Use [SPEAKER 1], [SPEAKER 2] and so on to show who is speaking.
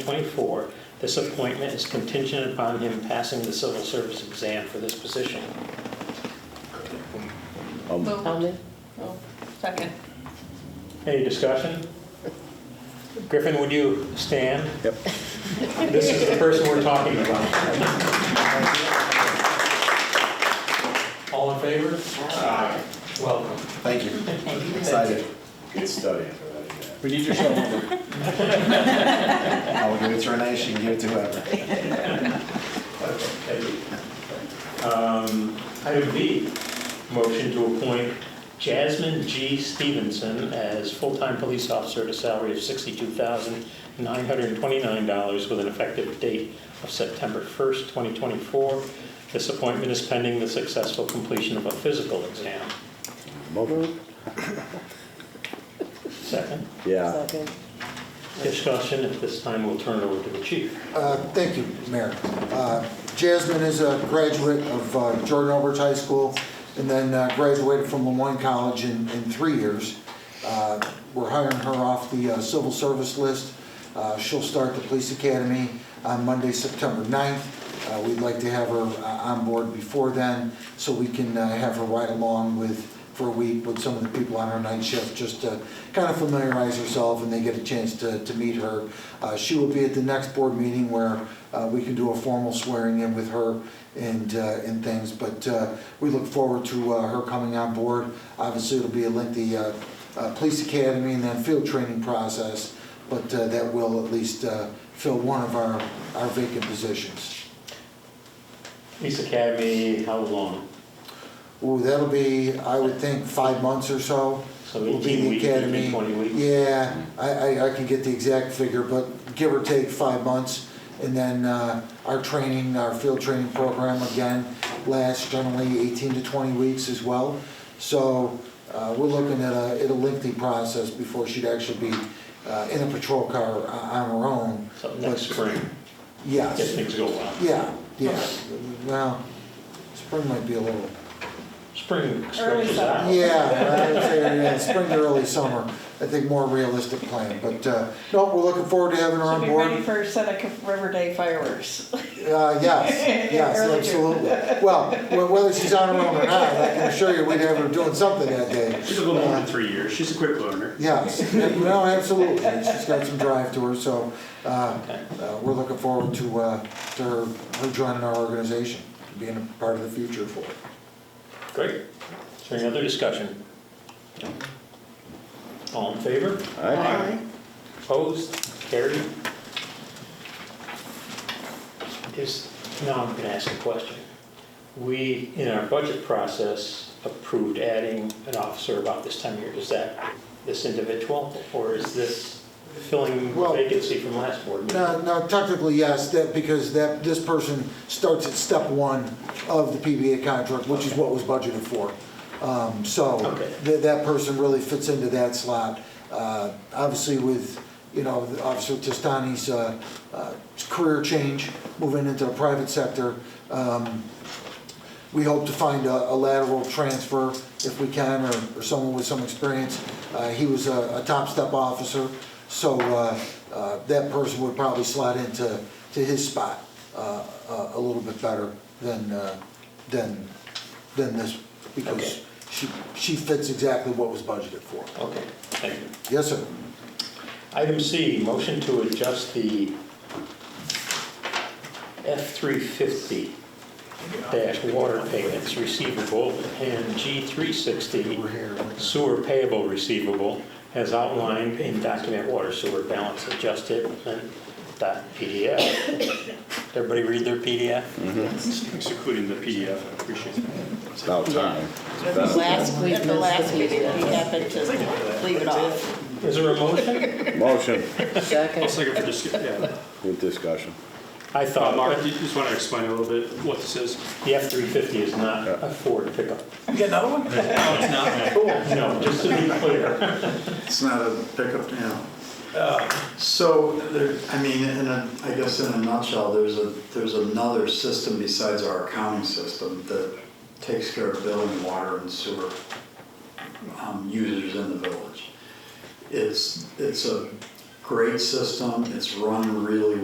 [SPEAKER 1] 2024. This appointment is contingent upon him passing the civil service exam for this position.
[SPEAKER 2] Moved.
[SPEAKER 3] I'll move.
[SPEAKER 2] Oh, Second.
[SPEAKER 1] Any discussion? Griffin, would you stand?
[SPEAKER 4] Yep.
[SPEAKER 1] This is the person we're talking about. All in favor? Aye. Welcome.
[SPEAKER 4] Thank you. Excited. Good study.
[SPEAKER 5] We need your shovel.
[SPEAKER 4] I'll give it to Renee, she can give it to whoever.
[SPEAKER 1] Um, Item B, motion to appoint Jasmine G. Stevenson as full-time police officer at a salary of $62,929 with an effective date of September 1st, 2024. This appointment is pending the successful completion of a physical exam.
[SPEAKER 3] Move.
[SPEAKER 1] Second,
[SPEAKER 5] Yeah.
[SPEAKER 3] Second.
[SPEAKER 1] discussion, at this time we'll turn it over to the chief.
[SPEAKER 6] Uh, Thank you, Mayor. Uh, Jasmine is a graduate of uh, Jordan Albert High School and then uh, graduated from Lemoyne College in, in three years. Uh, We're hiring her off the uh, civil service list. Uh, She'll start the police academy on Monday, September 9th. Uh, We'd like to have her uh, on board before then so we can uh, have her ride along with for a week with some of the people on our night shift, just to kind of familiarize herself, and they get a chance to, to meet her. Uh, she will be at the next board meeting where, uh, we can do a formal swearing in with her and, uh, and things, but, uh, we look forward to, uh, her coming on board. Obviously, it'll be a lengthy, uh, uh, police academy and then field training process, but, uh, that will at least, uh, fill one of our, our vacant positions.
[SPEAKER 1] Police Academy, how long?
[SPEAKER 6] Ooh, that'll be, I would think, five months or so.
[SPEAKER 1] So
[SPEAKER 6] will be
[SPEAKER 1] 18
[SPEAKER 6] the
[SPEAKER 1] weeks,
[SPEAKER 6] academy.
[SPEAKER 1] 18, 20 weeks?
[SPEAKER 6] Yeah, I, I, I can get the exact figure, but give or take five months. And then, uh, our training, our field training program again lasts generally eighteen to twenty weeks as well. So, uh, we're looking at a, at a lengthy process before she'd actually be, uh, in a patrol car o- on her own.
[SPEAKER 1] So next
[SPEAKER 6] But-
[SPEAKER 1] spring, if
[SPEAKER 6] Yes,
[SPEAKER 1] things go well.
[SPEAKER 6] yeah, yeah. Well, spring might be a little.
[SPEAKER 1] Spring stretches
[SPEAKER 2] summer.
[SPEAKER 1] out.
[SPEAKER 6] Yeah, I would say, yeah, spring to early summer, I think more realistic plan, but, uh, no, we're looking forward to having her
[SPEAKER 2] Should
[SPEAKER 6] on
[SPEAKER 2] be ready
[SPEAKER 6] board.
[SPEAKER 2] for Seneca River Day fireworks.
[SPEAKER 6] Uh, yes, yes,
[SPEAKER 2] Early June.
[SPEAKER 6] absolutely. Well, wh- whether she's on her own or not, I can assure you, we'd have her doing something that day.
[SPEAKER 7] She's a little more than three years. She's a quick learner.
[SPEAKER 6] Yes, no, absolutely, And she's got some drive to her, so, uh, uh, we're looking forward to, uh, to her, her joining our organization, being a part of the future for it.
[SPEAKER 1] Great. Is there any other discussion? All in favor?
[SPEAKER 5] Aye.
[SPEAKER 1] Opposed? Carried? Is, now I'm gonna ask a question. We, in our budget process, approved adding an officer about this time of year. Is that this individual, or is this filling the
[SPEAKER 6] Well-
[SPEAKER 1] vacancy from last board meeting?
[SPEAKER 6] No, no, technically, yes, that, because that, this person starts at step one of the PBA contract, which is what was budgeted for. Um, So,
[SPEAKER 1] Okay.
[SPEAKER 6] that, that person really fits into that slot. Uh, Obviously with, you know, Officer Testani's uh, uh, career change, moving into the private sector, um, we hope to find a a lateral transfer if we can, or, or someone with some experience. Uh, He was a, a top step officer, so uh, uh, that person would probably slide into, to his spot uh, a a little bit better than, uh, than, than this,
[SPEAKER 1] Okay.
[SPEAKER 6] because she, she fits exactly what was budgeted for.
[SPEAKER 1] Okay, thank you.
[SPEAKER 6] Yes, sir.
[SPEAKER 1] Item C, motion to adjust the F-350 dash water payments receivable and G-360 sewer payable receivable as outlined in document water sewer balance adjusted dot PDF. Everybody read their PDF?
[SPEAKER 7] Thanks, including the PDF. I appreciate that.
[SPEAKER 5] It's about time.
[SPEAKER 2] At the last, at the last meeting, we happened to leave it off.
[SPEAKER 1] Is there a motion?
[SPEAKER 5] Motion
[SPEAKER 7] I'll
[SPEAKER 3] Second.
[SPEAKER 7] second for discussion. Yeah.
[SPEAKER 5] with discussion.
[SPEAKER 1] I
[SPEAKER 7] Uh,
[SPEAKER 1] thought
[SPEAKER 7] Mark, you just want to explain a little bit what this is?
[SPEAKER 1] the F-350 is not a Ford pickup.
[SPEAKER 7] No, it's not.
[SPEAKER 1] Cool. No, just to be clear.
[SPEAKER 8] It's not a pickup now. So there, I mean, in a, I guess in a nutshell, there's a, there's another system besides our accounting system that takes care of billing, water and sewer um, users in the village. It's, it's a great system, it's run really